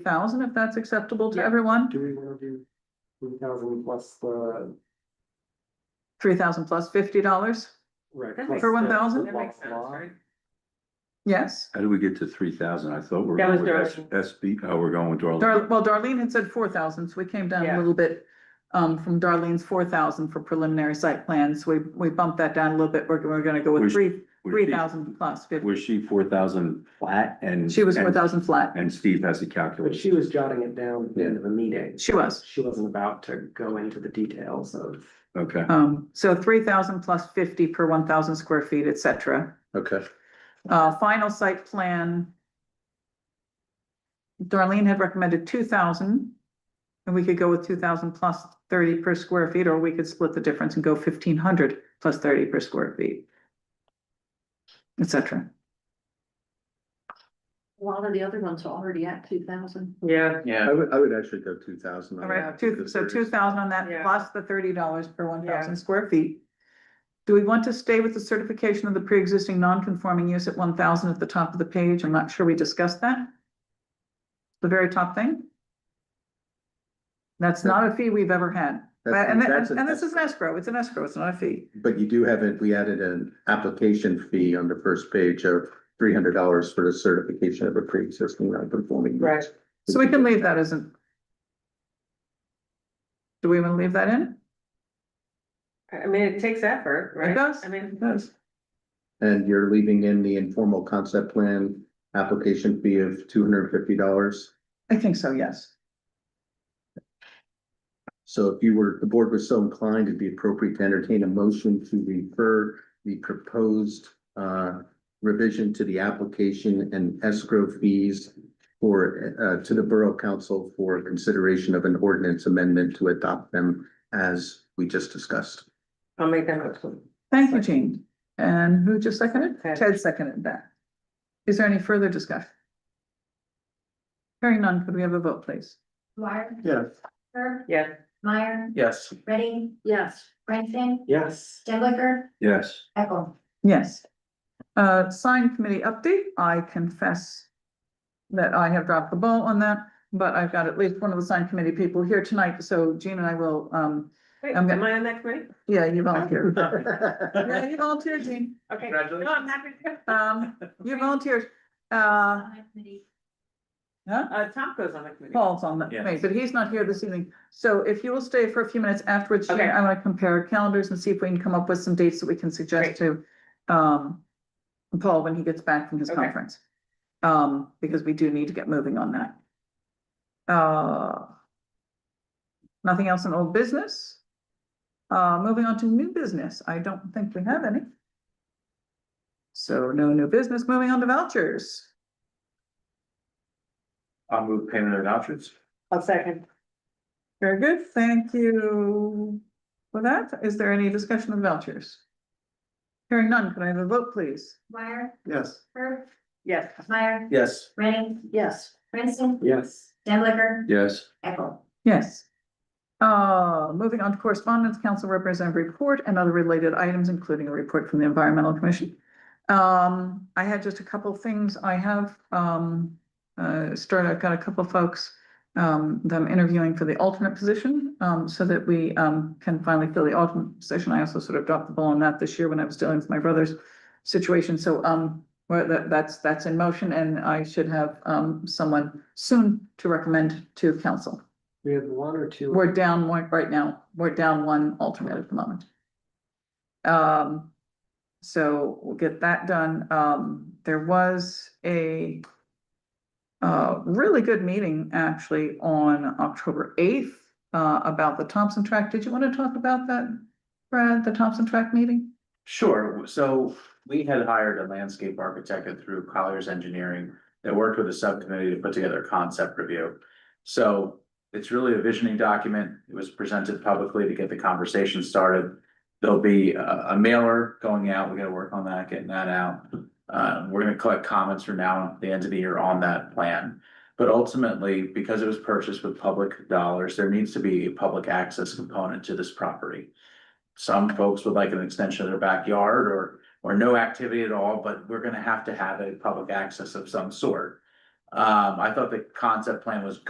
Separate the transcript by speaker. Speaker 1: thousand, if that's acceptable to
Speaker 2: Yeah.
Speaker 1: everyone,
Speaker 3: Do we wanna do three thousand plus the,
Speaker 1: three thousand plus fifty dollars,
Speaker 3: right?
Speaker 2: That
Speaker 3: plus
Speaker 2: makes
Speaker 1: For
Speaker 3: the-
Speaker 1: one
Speaker 2: sense.
Speaker 1: thousand?
Speaker 3: the
Speaker 2: That makes sense,
Speaker 3: law?
Speaker 2: right?
Speaker 1: yes.
Speaker 4: How do we get to three thousand? I thought we we're
Speaker 2: That was
Speaker 4: going with
Speaker 2: Darlene.
Speaker 4: S- SB, oh, we're going with
Speaker 1: Dar-
Speaker 4: Darlene.
Speaker 1: well, Darlene had said four thousand, so we came down a
Speaker 2: Yeah.
Speaker 1: little bit um from Darlene's four thousand for preliminary site plans, we we bumped that down a little bit, we're we're gonna go with
Speaker 4: Was-
Speaker 1: three,
Speaker 4: Was she-
Speaker 1: three thousand plus fifty.
Speaker 4: Was she four thousand flat and?
Speaker 1: She was
Speaker 4: and-
Speaker 1: four thousand flat,
Speaker 4: And Steve has a
Speaker 3: But
Speaker 4: calculator.
Speaker 3: she was jotting it down at the end of a meeting.
Speaker 1: she was,
Speaker 3: She wasn't about to go into the details of.
Speaker 4: Okay,
Speaker 1: um, so three thousand plus fifty per one thousand square feet, et cetera.
Speaker 4: okay.
Speaker 1: Uh, final site plan. Darlene had recommended two thousand. And we could go with two thousand plus thirty per square feet, or we could split the difference and go fifteen hundred plus thirty per square feet. Et cetera.
Speaker 5: A lot of the other ones are already at two thousand.
Speaker 2: Yeah,
Speaker 6: I would, I would actually go two thousand.
Speaker 1: All right, two, so two thousand on that
Speaker 2: Yeah.
Speaker 1: plus the thirty dollars per one
Speaker 2: Yeah.
Speaker 1: thousand square feet. Do we want to stay with the certification of the pre-existing non-conforming use at one thousand at the top of the page? I'm not sure we discussed that. The very top thing. That's not a fee we've ever had. But- And,
Speaker 6: That's-
Speaker 1: and, and this is
Speaker 6: that's-
Speaker 1: an escrow. It's an escrow. It's not a fee.
Speaker 6: But you do have it, we added an application fee on the first page of three hundred dollars for the certification of a pre-existing non-conforming. use.
Speaker 2: Right.
Speaker 1: So we can leave that as an. Do we want to leave that in?
Speaker 2: I mean, it takes effort, right?
Speaker 1: It does.
Speaker 2: I mean,
Speaker 1: It does.
Speaker 6: And you're leaving in the informal concept plan application fee of two hundred and fifty dollars.
Speaker 1: I think so, yes.
Speaker 6: So if you were, the board was so inclined, it'd be appropriate to entertain a motion to refer the proposed uh revision to the application and escrow fees for uh to the Borough Council for consideration of an ordinance amendment to adopt them as we just discussed.
Speaker 2: I'll make that motion.
Speaker 1: Thank you, Jean. And who just seconded?
Speaker 2: Ted.
Speaker 1: Ted seconded that. Is there any further discussion? Hearing none, could we have a vote, please?
Speaker 7: Mark,
Speaker 3: Yes.
Speaker 7: Herb,
Speaker 2: Yeah,
Speaker 7: Meyer,
Speaker 3: Yes.
Speaker 7: Ready,
Speaker 5: Yes.
Speaker 7: Branson,
Speaker 3: Yes.
Speaker 7: Stenbacher,
Speaker 4: Yes.
Speaker 7: Eckel.
Speaker 1: Yes. Uh, sign committee update, I confess that I have dropped the ball on that, but I've got at least one of the sign committee people here tonight, so Jean and I will, um,
Speaker 2: wait,
Speaker 1: I'm gonna-
Speaker 2: am I on that committee?
Speaker 1: yeah, you volunteered. Yeah, you volunteered, Jean.
Speaker 2: Okay.
Speaker 3: Congratulations.
Speaker 2: No, I'm happy to.
Speaker 1: Um, you volunteered. Uh, huh?
Speaker 2: Uh, Tom goes on the committee.
Speaker 1: Paul's on that,
Speaker 3: Yeah.
Speaker 1: committee, but he's not here this evening. So if you will stay for a few minutes afterwards, Jean,
Speaker 2: Okay.
Speaker 1: I want to compare calendars and see if we can come up with some dates that we can suggest to um Paul when he gets back from his
Speaker 2: Okay.
Speaker 1: conference. Um, because we do need to get moving on that. Uh, nothing else in old business? Uh, moving on to new business. I don't think we have any. So no new business. Moving on to vouchers.
Speaker 3: I'll move payment of vouchers.
Speaker 2: I'll second.
Speaker 1: Very good, thank you for that. Is there any discussion of vouchers? Hearing none, can I have a vote, please?
Speaker 7: Meyer,
Speaker 3: Yes.
Speaker 7: Herb,
Speaker 2: Yes,
Speaker 7: Meyer,
Speaker 3: Yes.
Speaker 7: Ready,
Speaker 5: Yes.
Speaker 7: Branson,
Speaker 3: Yes.
Speaker 7: Stenbacher,
Speaker 4: Yes.
Speaker 7: Eckel.
Speaker 1: Yes. Uh, moving on to correspondence, council representative report and other related items, including a report from the environmental commission. Um, I had just a couple of things. I have, um, uh, started, I've got a couple of folks, um, them interviewing for the alternate position, um, so that we, um, can finally fill the alternate position. I also sort of dropped the ball on that this year when I was dealing with my brother's situation. So, um, well, that, that's, that's in motion and I should have, um, someone soon to recommend to council.
Speaker 3: We had one or two.
Speaker 1: We're down one right now, we're down one alternate at the moment. Um, so we'll get that done. Um, there was a. Uh, really good meeting actually on October eighth, uh, about the Thompson Track. Did you want to talk about that? Brad, the Thompson Track meeting?
Speaker 8: Sure, so we had hired a landscape architect through Colliers Engineering that worked with a subcommittee to put together a concept review. So it's really a visioning document. It was presented publicly to get the conversation started. There'll be a, a mailer going out. We gotta work on that, getting that out. Uh, we're gonna collect comments from now at the end of the year on that plan. But ultimately, because it was purchased with public dollars, there needs to be a public access component to this property some folks would like an extension of their backyard or, or no activity at all, but we're gonna have to have a public access of some sort. Um, I thought the concept plan was